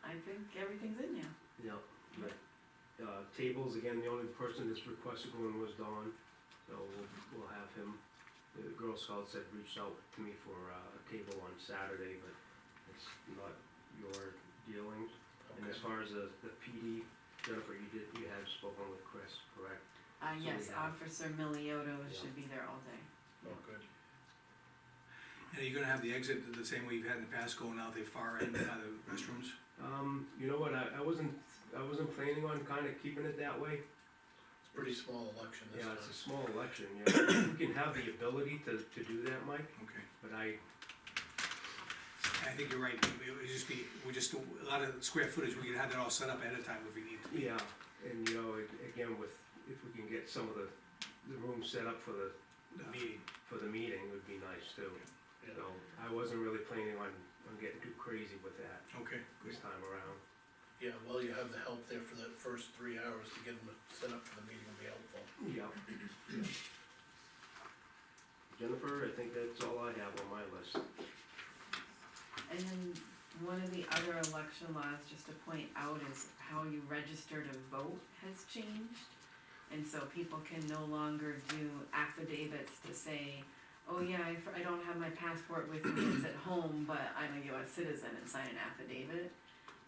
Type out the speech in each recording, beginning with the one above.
I think everything's in there. Yeah, right. Uh, tables, again, the only person that's requested one was Don, so we'll, we'll have him. The Girl Scouts had reached out to me for uh, a table on Saturday, but it's not your dealings. And as far as the, the PD, Jennifer, you did, you had spoken with Chris, correct? Uh, So we yes, have- Officer Milioto Yeah. should be there all day. Oh, good. And you're gonna have the exit the same way you've had in the past, going out the far end by the restrooms? Um, you know what, I, I wasn't, I wasn't planning on kinda keeping it that way. It's a pretty small election this Yeah, time. it's a small election, yeah. You can have the ability to, to do that, Mike, Okay. but I, I think you're right, it would just be, we just, do a lot of square footage, we could have that all set up ahead of time if we need to. Yeah, and you know, a- again, with, if we can get some of the, the room set up for the, The meeting, for the meeting would be nice too. Yeah. So I wasn't really planning on, on getting too crazy with that okay, good. this time around. Yeah, well, you have the help there for the first three hours to get them set up for the meeting will be helpful. Yeah. Jennifer, I think that's all I have on my list. And then one of the other election laws, just to point out, is how you register to vote has changed. And so people can no longer do affidavits to say, oh yeah, I, f- I don't have my passport with me, it's at home, but I'm a US citizen and sign an affidavit.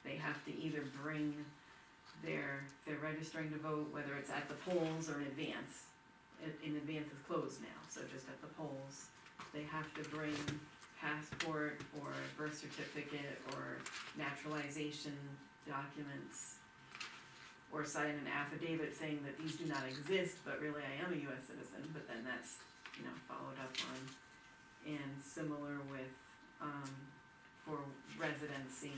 They have to either bring their, they're registering to vote, whether it's at the polls or in advance. In- In advance is closed now, so just at the polls, they have to bring passport or birth certificate or naturalization documents. Or sign an affidavit saying that these do not exist, but really I am a US citizen, but then that's, you know, followed up on. And similar with, um, for residency,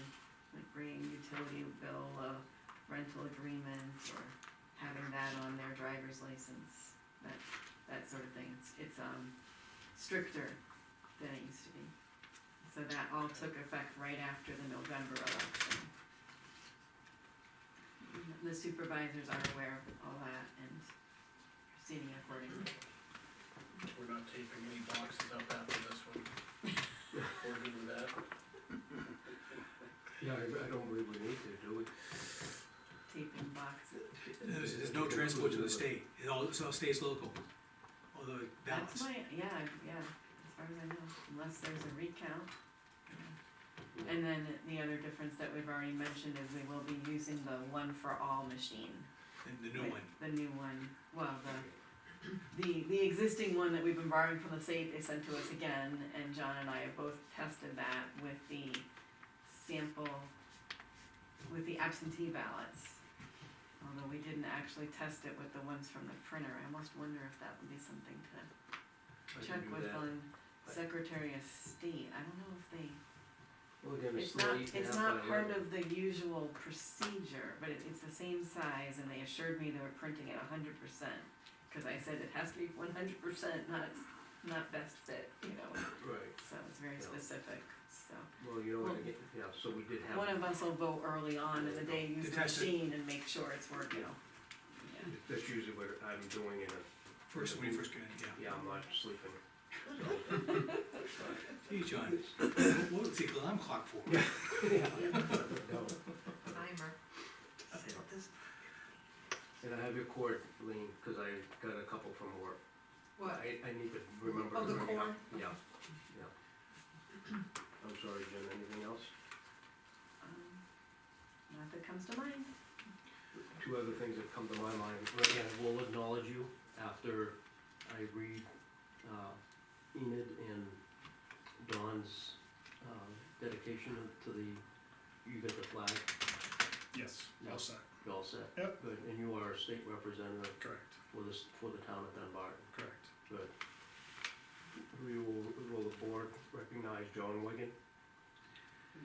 like bringing utility bill, a rental agreement, or having that on their driver's license, that, that sort of thing, it's, it's, um, stricter than it used to be. So that all took effect right after the November election. The supervisors are aware of all that and proceeding accordingly. We're not taping any boxes up after this one. We're good with that. Yeah, I, I don't believe we need to, do we? Taping boxes, There's, there's no transport to the state, it all, it all stays local, although it that's balance. my, yeah, yeah, as far as I know, unless there's a recount. yeah. And then the other difference that we've already mentioned is we will be using the one for all machine. And the new with one, The new one, well, the the, the existing one that we've been borrowing from the state, they sent to us again, and John and I have both tested that with the sample, with the absentee ballots. Although we didn't actually test it with the ones from the printer, I almost wonder if that would be something to I can check do with that. on Secretary of State, I don't know if they, Well, again, it's still not, eight and a it's not half by part eleven. of the usual procedure, but it, it's the same size, and they assured me they were printing it a hundred percent. Cause I said it has to be one hundred percent, not, not best fit, you know, Right, so it's very Yeah. specific, so. well, you know, what, Well- again, yeah, so we did have. One of us will vote early on in the day, use the Detach it. machine and make sure it's working. Yeah. That's usually what I'm doing in a, first, when you first get in, yeah. yeah, I'm not sleeping. Hey, John, what was the alarm clock for? No. Timer. Set this- And I have your cord, Lean, because I got a couple from work. What? I, I need to remember. Oh, to the bring it up. cord? Yeah, yeah. I'm sorry, Jim, anything else? Um, Not that comes to mind. Two other things that come to my mind. Right, yeah, we'll acknowledge you after I read, uh, Enid and Don's, um, dedication to the, you got the flag, Yes, all set. you all set? Yep. Good, and you are a state representative Correct, for this, for the town of Dunbar, correct. good. We will, will the board recognize John Wigan?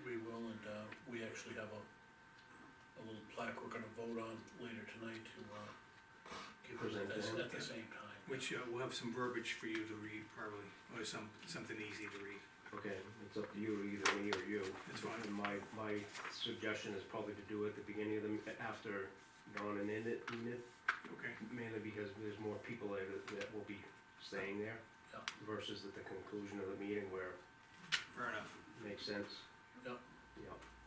We will, and, uh, we actually have a, a little plaque we're gonna vote on later tonight to, uh, give us Present at the- to him. at the same time. Which, uh, we'll have some verbiage for you to read probably, or some, something easy to read. Okay, it's up to you, either me or you. That's fine. And my, my suggestion is probably to do it at the beginning of the, after Don and Enid, Enid, Okay, mainly because there's more people there that, that will be staying there. Yeah. Versus at the conclusion of the meeting where fair enough. Makes sense? Yep. Yep.